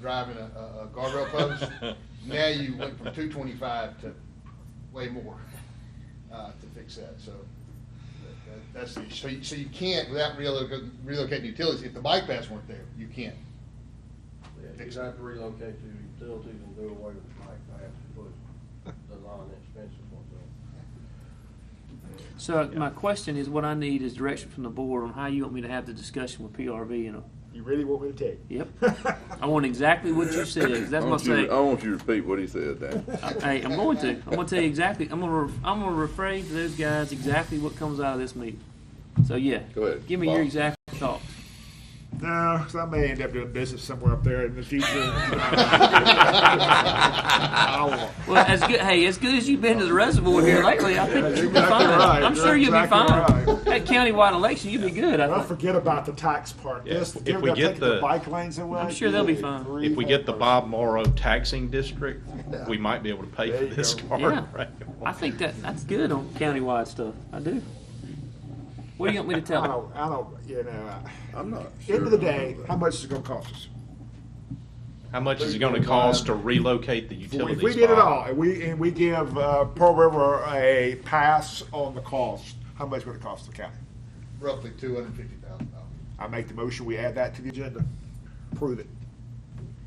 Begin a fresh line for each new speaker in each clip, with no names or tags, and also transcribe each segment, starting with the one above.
driving a, a a guardrail post. Now you went from two twenty-five to way more, uh, to fix that, so. that- that- That's the, issue. so you, so you can't, without relocating, relocating utilities, if the bike paths weren't there, you can't.
Yeah, you'd have to relocate the utilities and do away with the bike path and put the line expensive ones up.
So my question is, what I need is direction from the board on how you want me to have the discussion with PRV and, uh,
You really want me to take?
yep. I want exactly what you said, 'cause that's what I say.
I want you to repeat what he said, Dan.
Hey, I'm going to, I'm gonna tell you exactly, I'm gonna, re- I'm gonna rephrase to those guys exactly what comes out of this meeting. So, yeah.
Go ahead,
Give me your
Bob.
exact thoughts.
No, 'cause I may end up doing business somewhere up there in the future.
Well, as good, hey, as good as you've been to the reservoir here lately, I think
Yeah,
you'll be
you're exactly
fine.
right.
I'm
You're
sure you'll be
exactly
fine.
right.
That countywide election, you'll be good, I
Well,
think.
forget about the tax part.
Yeah,
Just
if
give
we
them
get
taking the
the-
bike lanes away.
I'm sure they'll be
good
fine.
grief.
If we get the Bob Morrow taxing district, we might be able to pay
There
for
you
this
go.
car.
Yeah.
right?
I think that, that's good on countywide stuff. I do. What do you want me to tell
I
them?
don't, I don't, you know, I- uh,
I'm not sure.
end of the day, how much is it gonna cost us?
How much is it gonna cost to relocate the utilities?
If we did it
Bob?
all, and we, and we give, uh, Pearl River a pass on the cost, how much would it cost the county?
Roughly two hundred and fifty thousand dollars.
I make the motion, we add that to the agenda. Prove it.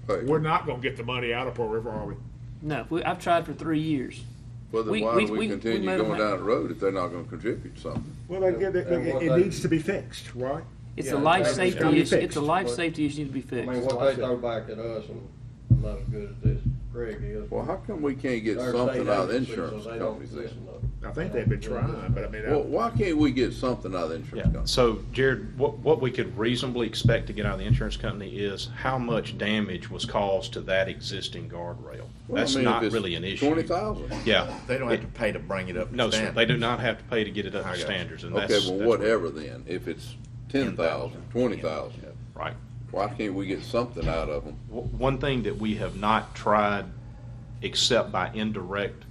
Hey,
We're not gonna get the money out of Pearl River, are we?
No, we, I've tried for three years.
Well,
we-
then why
we-
do
we- we
we continue
made a
going
ma-
down the road if they're not gonna contribute something?
Well, I get it,
And
it-
what
it
they-
needs to be fixed, right?
It's
Yeah,
a life
it's gotta be
safety issue. It's
fixed.
a life
But-
safety issue to be
I mean,
fixed.
what they throw back at us, and I'm not as good at this, Greg is.
Well, how come we can't get
They're
something
state
out of the
agencies, so
insurance
they don't
companies then?
listen up.
I think they've been trying, but I mean,
Well,
I-
why can't we get something out of the
Yeah,
insurance companies?
so Jared, what, what we could reasonably expect to get out of the insurance company is how much damage was caused to that existing guardrail.
Well, I
That's
mean, if
not
it's
really an issue.
Twenty thousand?
Yeah,
They don't have to pay to bring it up
no,
to
sir,
standard.
they do not have to pay to get it up
I got
to
you.
standards, and that's.
Okay, well,
that's what-
whatever then, if it's ten thousand, twenty thousand,
Right.
why can't we get something out of them?
W- One thing that we have not tried, except by indirect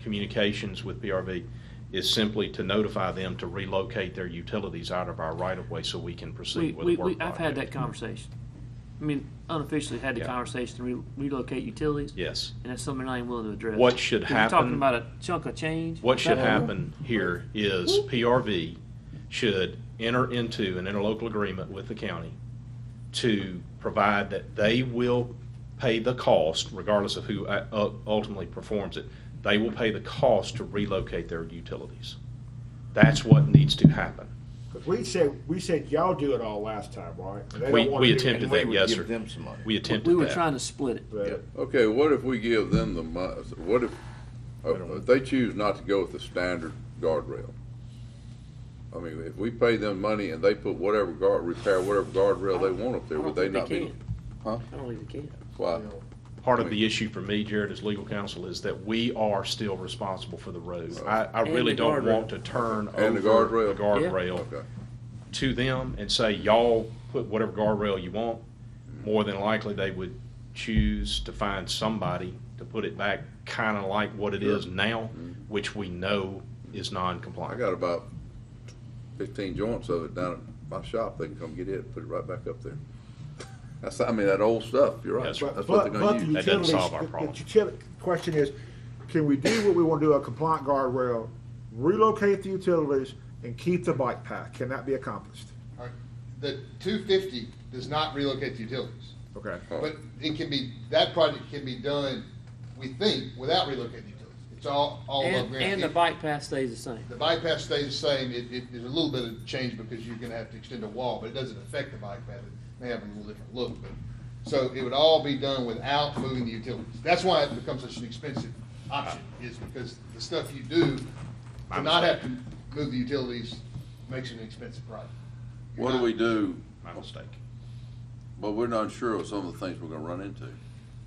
communications with PRV, is simply to notify them to relocate their utilities out of our right-of-way so we can
We,
proceed with
we,
the
we,
work
I've had that
project.
conversation. I mean, unofficially had the
Yeah.
conversation to re- relocate utilities.
Yes.
And that's something I ain't willing to address.
What should
We're Talking
happen-
about a chunk of change.
What should happen here is PRV should enter into an interlocal agreement with the county to provide that they will pay the cost, regardless of who uh, u- ultimately performs it, they will pay the cost to relocate their utilities. That's what needs to happen.
'cause we said, we said y'all do it all last time, right? And they
We,
don't wanna
we
do it.
attempted
And we
that,
would
yes,
give
sir.
them some money.
We
We
attempted
were
that.
trying to split it.
But-
Okay, what if we give them the mon, what if, uh, if they choose not to go with the standard guardrail? I mean, if we pay them money and they put whatever guard, repair whatever guardrail they want up there, would they not be? Huh?
I don't think they can.
Why?
Part of the issue for me, Jared, as legal counsel, is that we are still responsible for the road. I, I
And
really
the
don't
guardrail.
want to turn over
And the
the
guardrail.
Yeah.
guardrail
Okay.
to them and say, y'all put whatever guardrail you want, more than likely they would choose to find somebody to put it back kind of like what it is now, which we know is
Mm-hmm. I
non-compliant.
got about fifteen joints of it down at my shop. They can come get it, and put it right back up there. That's, I mean, that old stuff, you're right.
Yes, sir.
That's what they're
but
gonna
the
use.
That doesn't
utilities-
solve our
the- the
problem.
utili- Question is, can we do what we want to do, a compliant guardrail, relocate the utilities and keep the bike path? Can that be accomplished?
All right, The two fifty does not relocate the utilities.
Okay.
But it can be, that project can be done, we think, without relocating utilities. It's all, all of
And,
Grand
and the
Canyon.
bike path stays the same.
The bypass stays the same, it, it, there's a little bit of change because you're gonna have to extend a wall, but it doesn't affect the bike path. It may have a little different look, but, so it would all be done without moving the utilities. That's why it becomes such an expensive option, is because the stuff you do, to not have to move the utilities makes it an expensive project.
What do we do,
My mistake.
but we're not sure of some of the things we're gonna run into?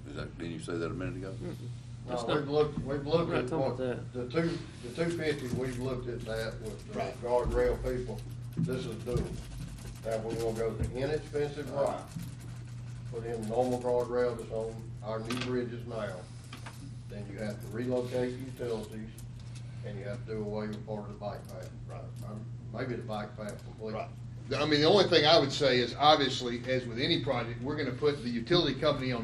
Is that, didn't you say that a minute ago?
No,
That's not-
we've looked, we've looked
We're not
at
talking
what,
about
the two, the two fifty, we've looked at that with the
Right.
guardrail people, this is doable. Now, we're gonna go the inexpensive route, put in normal guardrail that's on our new bridges now. Then you have to relocate utilities, and you have to do away with part of the bike path. Right. Maybe the bike path completely.
I mean, the only thing I would say is, obviously, as with any project, we're gonna put the utility company on